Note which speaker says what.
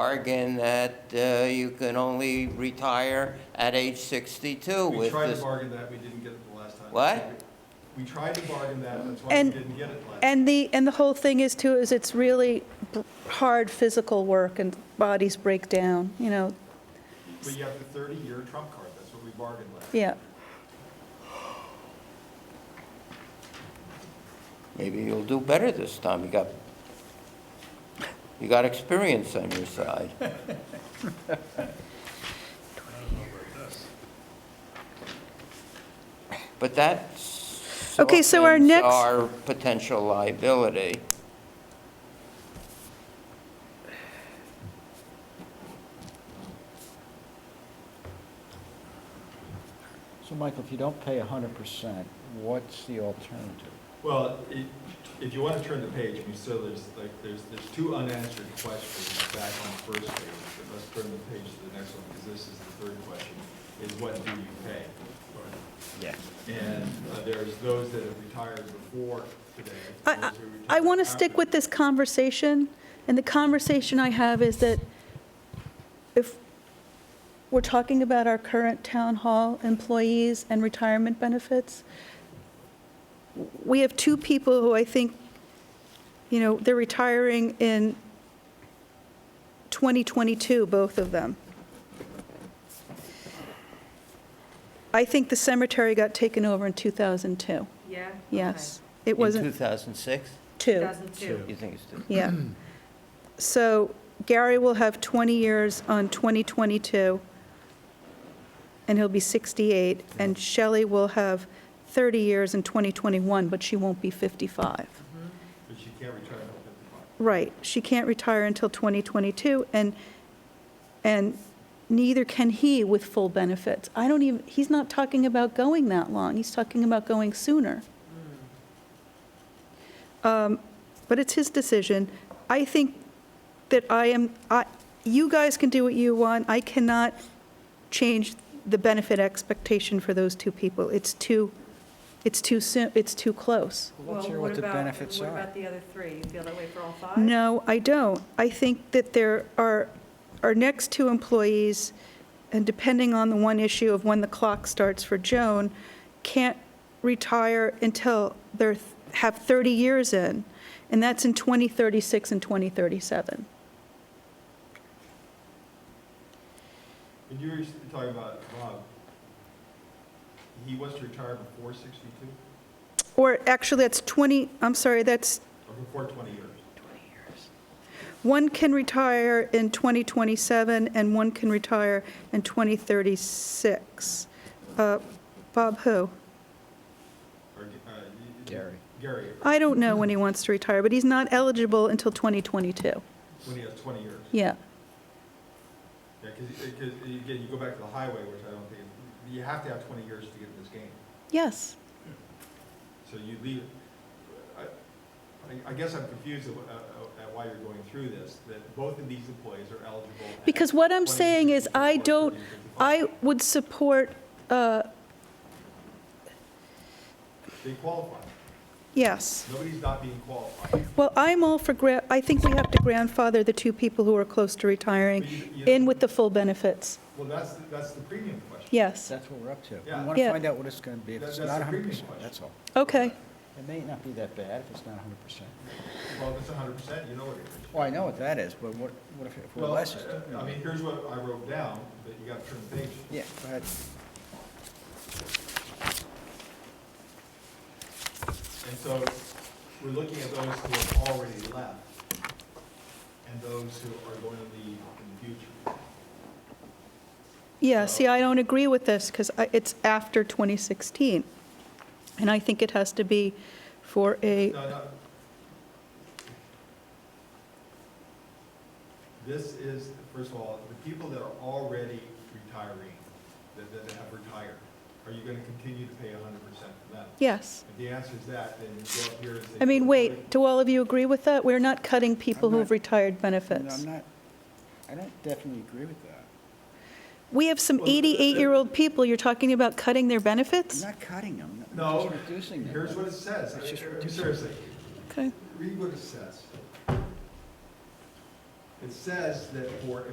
Speaker 1: bargain that uh, you can only retire at age 62
Speaker 2: We
Speaker 1: with
Speaker 2: tried to
Speaker 1: this.
Speaker 2: bargain that, we didn't get it the last time.
Speaker 1: What?
Speaker 2: We tried to bargain that, that's why we
Speaker 3: And-
Speaker 2: didn't get it last. time.
Speaker 3: And the, and the whole thing is too, is it's really b- hard physical work and bodies break down, you know,
Speaker 2: But you have the 30-year trump card, that's what we bargained last.
Speaker 3: yeah.
Speaker 1: Maybe you'll do better this time. You got, you got experience on your side. But that
Speaker 3: Okay, so our
Speaker 1: softens
Speaker 3: next-
Speaker 1: Our potential liability.
Speaker 4: So Michael, if you don't pay hundred percent, what's the alternative?
Speaker 2: Well, i- if you want to turn the page, I mean, so there's like, there's, there's two unanswered questions back on the first page. But let's turn the page to the next one, because this is the third question, is what do you pay?
Speaker 4: Yeah.
Speaker 2: And uh, there's those that have retired before today.
Speaker 3: I, I want to stick with this conversation, and the conversation I have is that if we're talking about our current town hall employees and retirement benefits, we have two people who I think, you know, they're retiring in 2022, both of them. I think the cemetery got taken over in 2002,
Speaker 5: Yeah? Okay.
Speaker 3: yes. It wasn't.
Speaker 1: In 2006?
Speaker 3: Two,
Speaker 5: 2002.
Speaker 1: You think it's, two-
Speaker 3: yeah. So Gary will have 20 years on 2022, and he'll be 68, and Shelley will have 30 years in 2021, but she won't be 55.
Speaker 2: But you can't retire until
Speaker 3: Right, she can't retire until 2022, and, and neither can he with full benefits. I don't even, he's not talking about going that long, he's talking about going sooner. Um, But it's his decision. I think that I am, I, you guys can do what you want, I cannot change the benefit expectation for those two people. It's too, it's too soon, it's too close.
Speaker 4: Let's hear
Speaker 5: Well,
Speaker 4: what the
Speaker 5: about-
Speaker 4: benefits
Speaker 5: What
Speaker 4: are.
Speaker 5: about the other three? You feel that way for all five?
Speaker 3: No, I don't. I think that there are, our next two employees, and depending on the one issue of when the clock starts for Joan, can't retire until they're, have 30 years in, and that's in 2036 and 2037.
Speaker 2: And you were just talking about Rob, he wants to retire before 62?
Speaker 3: Or actually, that's 20, I'm sorry, that's,
Speaker 2: Or before 20 years?
Speaker 3: one can retire in 2027 and one can retire in 2036. Uh, Bob who?
Speaker 2: Or, uh, you-
Speaker 4: Gary.
Speaker 2: Gary,
Speaker 3: I don't know when he wants to retire, but he's not eligible until 2022.
Speaker 2: when he has 20 years.
Speaker 3: Yeah.
Speaker 2: Yeah, because, again, you go back to the highway, which I don't think, is- you have to have 20 years to get in this game.
Speaker 3: Yes.
Speaker 2: So you leave, I, I- I guess I'm confused at uh, at why you're going through this, that both of these employees are eligible. at
Speaker 3: Because what I'm
Speaker 2: 20,
Speaker 3: saying is I
Speaker 2: 60,
Speaker 3: don't-
Speaker 2: 40, 55.
Speaker 3: I would support, uh,
Speaker 2: They qualify.
Speaker 3: yes.
Speaker 2: Nobody's not being qualified.
Speaker 3: Well, I'm all for, gra- I think we have to grandfather the two people who are close to retiring in with the full benefits.
Speaker 2: Well, that's, the- that's the premium question.
Speaker 3: Yes.
Speaker 4: That's what we're up to.
Speaker 2: Yeah.
Speaker 4: We want to
Speaker 3: Yeah.
Speaker 4: find out what it's going to be. If
Speaker 2: That-
Speaker 4: it's
Speaker 2: that's
Speaker 4: not
Speaker 2: the
Speaker 4: hundred
Speaker 2: premium
Speaker 4: percent,
Speaker 2: question.
Speaker 4: that's all.
Speaker 3: Okay.
Speaker 4: It may not be that bad if it's not hundred percent.
Speaker 2: Well, if it's hundred percent, you know what it is.
Speaker 4: Well, I know what that is, but what, what if if we're
Speaker 2: Well, uh,
Speaker 4: less?
Speaker 2: I- I mean, here's what I wrote down, but you gotta turn the page.
Speaker 4: Yeah, go ahead.
Speaker 2: And so, we're looking at those who have already left, and those who are going to leave in the future.
Speaker 3: Yeah, see, I don't agree with this because it's after 2016. And I think it has to be for a,
Speaker 2: No, no. This is, first of all, the people that are already retiring, that, that have retired, are you gonna continue to pay hundred percent for them?
Speaker 3: yes.
Speaker 2: If the answer is that, then you go up here and say.
Speaker 3: I mean, wait, do all of you agree with that? We're not cutting people
Speaker 4: I'm not-
Speaker 3: who've retired
Speaker 4: No, I'm
Speaker 3: benefits.
Speaker 4: not, I don't definitely agree with that.
Speaker 3: We have some
Speaker 2: Well, the-
Speaker 3: 88-year-old people, you're talking about cutting their
Speaker 4: I'm
Speaker 3: benefits?
Speaker 4: not cutting them, I'm
Speaker 2: No,
Speaker 4: just reducing them.
Speaker 2: here's what it says,
Speaker 4: It's just
Speaker 2: Uh,
Speaker 4: reducing.
Speaker 2: seriously,
Speaker 3: Okay.
Speaker 2: read what it says. It says that for